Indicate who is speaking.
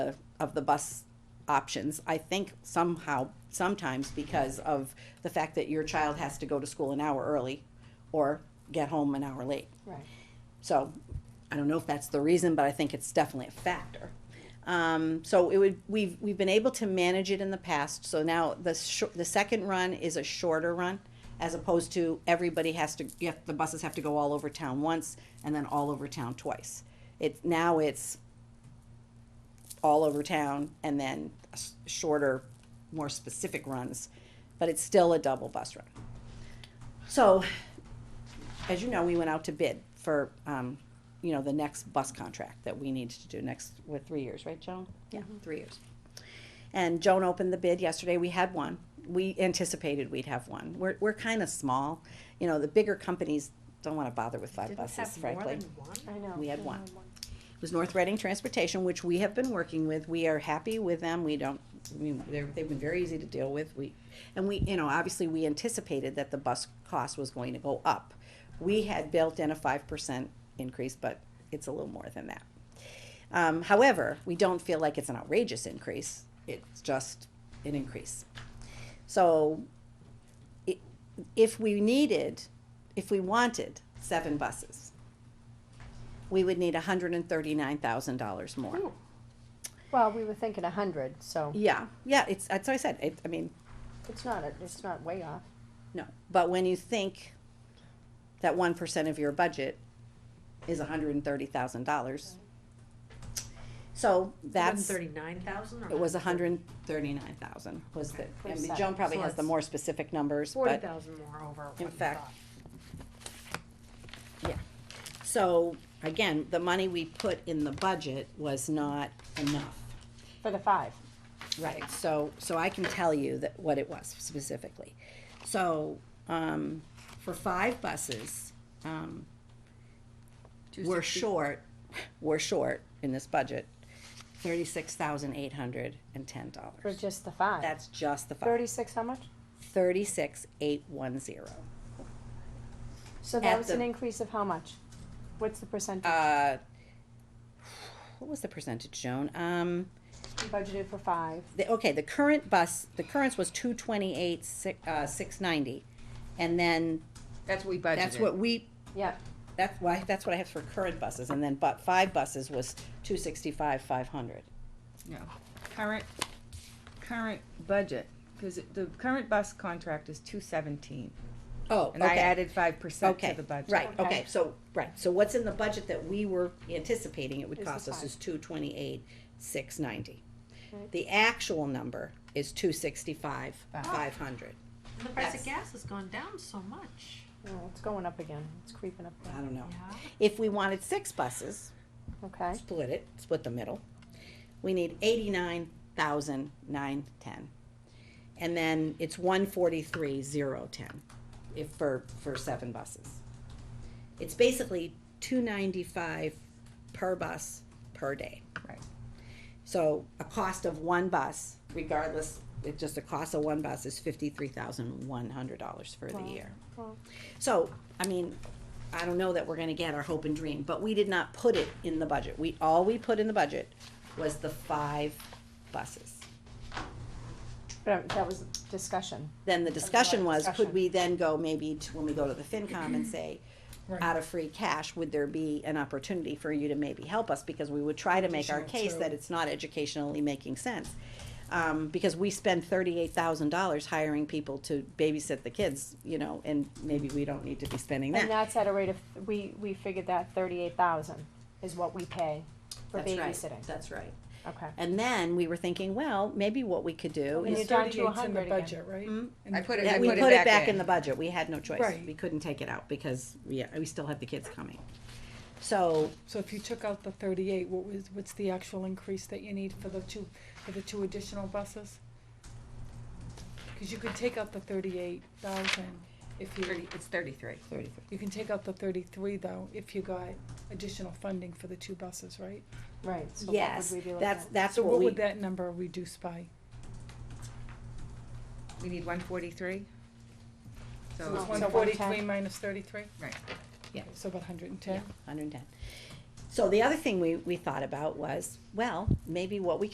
Speaker 1: the, of the bus options. I think somehow, sometimes because of the fact that your child has to go to school an hour early or get home an hour late.
Speaker 2: Right.
Speaker 1: So I don't know if that's the reason, but I think it's definitely a factor. Um, so it would, we've, we've been able to manage it in the past. So now the, shor- the second run is a shorter run as opposed to everybody has to, you have, the buses have to go all over town once and then all over town twice. It's, now it's all over town and then s- shorter, more specific runs, but it's still a double bus run. So as you know, we went out to bid for, um, you know, the next bus contract that we needed to do next, with three years, right, Joan? Yeah, three years. And Joan opened the bid yesterday, we had one, we anticipated we'd have one, we're, we're kinda small, you know, the bigger companies don't wanna bother with five
Speaker 3: Didn't
Speaker 1: buses,
Speaker 3: have more
Speaker 1: frankly.
Speaker 3: than one?
Speaker 2: I know.
Speaker 1: We had one. It was North Reading Transportation, which we have been working with. We are happy with them. We don't, I mean, they're, they've been very easy to deal with. We, and we, you know, obviously, we anticipated that the bus cost was going to go up. We had built in a five percent increase, but it's a little more than that. Um, however, we don't feel like it's an outrageous increase. It's just an increase. So i- if we needed, if we wanted seven buses, we would need hundred and thirty-nine thousand dollars more.
Speaker 2: Well, we were thinking a hundred, so
Speaker 1: Yeah, yeah, it's, that's what I said, it, I mean,
Speaker 2: it's not, a- it's not way off.
Speaker 1: no, but when you think that one percent of your budget is hundred and thirty thousand dollars. So that's, it
Speaker 3: Thirty-nine thousand or?
Speaker 1: was hundred and thirty-nine thousand was the, I mean,
Speaker 2: Percent.
Speaker 1: Joan probably
Speaker 3: So
Speaker 1: has the
Speaker 3: it's
Speaker 1: more specific numbers,
Speaker 3: Forty
Speaker 1: but,
Speaker 3: thousand more over what
Speaker 1: In
Speaker 3: you
Speaker 1: fact,
Speaker 3: thought.
Speaker 1: yeah. So, again, the money we put in the budget was not enough.
Speaker 2: For the five.
Speaker 1: Right, so, so I can tell you that, what it was specifically. So, um, for five buses, um, we're short, we're short in this budget, thirty-six thousand eight hundred and ten
Speaker 2: For
Speaker 1: dollars.
Speaker 2: just the five.
Speaker 1: That's just the five,
Speaker 2: Thirty-six, how much?
Speaker 1: thirty-six eight one zero.
Speaker 2: So
Speaker 1: At
Speaker 2: that was
Speaker 1: the-
Speaker 2: an increase of how much? What's the percentage?
Speaker 1: Uh, what was the percentage, Joan? Um,
Speaker 2: You budgeted for five.
Speaker 1: the, okay, the current bus, the current was two twenty-eight, six, uh, six ninety. And then,
Speaker 4: That's what we budgeted.
Speaker 1: that's what we
Speaker 2: Yep,
Speaker 1: That's why, that's what I have for current buses, and then but five buses was two sixty-five, five hundred.
Speaker 4: No, current, current budget, cause it- the current bus contract is two seventeen,
Speaker 1: Oh, okay.
Speaker 4: and I added five percent to
Speaker 1: Okay,
Speaker 4: the budget.
Speaker 1: right,
Speaker 2: Okay.
Speaker 1: okay, so, right, so what's in the budget that we were anticipating it would
Speaker 2: Is the
Speaker 1: cost us
Speaker 2: five.
Speaker 1: is two twenty-eight, six ninety.
Speaker 2: Right.
Speaker 1: The actual number is two sixty-five, five hundred.
Speaker 3: And the price
Speaker 1: Yes.
Speaker 3: of gas has gone down so much,
Speaker 2: well, it's going up again, it's creeping up,
Speaker 1: I don't know.
Speaker 3: yeah.
Speaker 1: If we wanted six buses,
Speaker 2: okay?
Speaker 1: split it, split the middle, we need eighty-nine thousand nine ten. And then it's one forty-three zero ten, if, for, for seven buses. It's basically two ninety-five per bus per day.
Speaker 4: Right.
Speaker 1: So a cost of one bus, regardless, it's just the cost of one bus is fifty-three thousand one hundred dollars for the
Speaker 2: Wow.
Speaker 1: year.
Speaker 2: Wow.
Speaker 1: So, I mean, I don't know that we're gonna get our hope and dream, but we did not put it in the budget. We, all we put in the budget was the five buses.
Speaker 2: But that was discussion.
Speaker 1: Then the discussion was, could
Speaker 2: Discussion.
Speaker 1: we then go maybe to, when we go to the FinCom and say, out of free cash, would there be an opportunity for you to maybe help us? Because we would try to make our case that it's not educationally making sense. Um, because we spend thirty-eight thousand dollars hiring people to babysit the kids, you know, and maybe we don't need to be spending that.
Speaker 2: And that's at a rate of, we, we figured that thirty-eight thousand is what we pay for
Speaker 1: That's right.
Speaker 2: babysitting,
Speaker 1: That's right.
Speaker 2: okay?
Speaker 1: And then we were thinking, well, maybe what we could do
Speaker 2: And
Speaker 1: is
Speaker 2: you're down to a hundred again.
Speaker 5: right?
Speaker 1: Mm.
Speaker 5: In
Speaker 4: I
Speaker 5: the-
Speaker 4: put it,
Speaker 1: that
Speaker 4: I
Speaker 1: we
Speaker 4: put it
Speaker 1: in
Speaker 4: back in.
Speaker 1: the budget. We had no choice.
Speaker 5: Right.
Speaker 1: We couldn't take it out because we, we still had the kids coming. So
Speaker 5: So if you took out the thirty-eight, what was, what's the actual increase that you need for the two, for the two additional buses? Cause you could take out the thirty-eight thousand if you,
Speaker 4: Thirty, it's thirty-three.
Speaker 1: thirty-three.
Speaker 5: you can take out the thirty-three though, if you got additional funding for the two buses, right?
Speaker 2: Right, so what would
Speaker 1: Yes,
Speaker 2: we be looking
Speaker 1: that's,
Speaker 2: at?
Speaker 1: that's
Speaker 5: So
Speaker 1: what
Speaker 5: what
Speaker 1: we,
Speaker 5: would that number reduce by?
Speaker 4: We need one forty-three.
Speaker 5: So it's
Speaker 2: Oh,
Speaker 4: So,
Speaker 2: one-
Speaker 5: one
Speaker 2: so
Speaker 5: forty-three
Speaker 2: 110.
Speaker 5: minus thirty-three?
Speaker 4: right,
Speaker 5: So about hundred and
Speaker 1: yeah,
Speaker 5: ten?
Speaker 1: hundred and ten. So the other thing we, we thought about was, well, maybe what we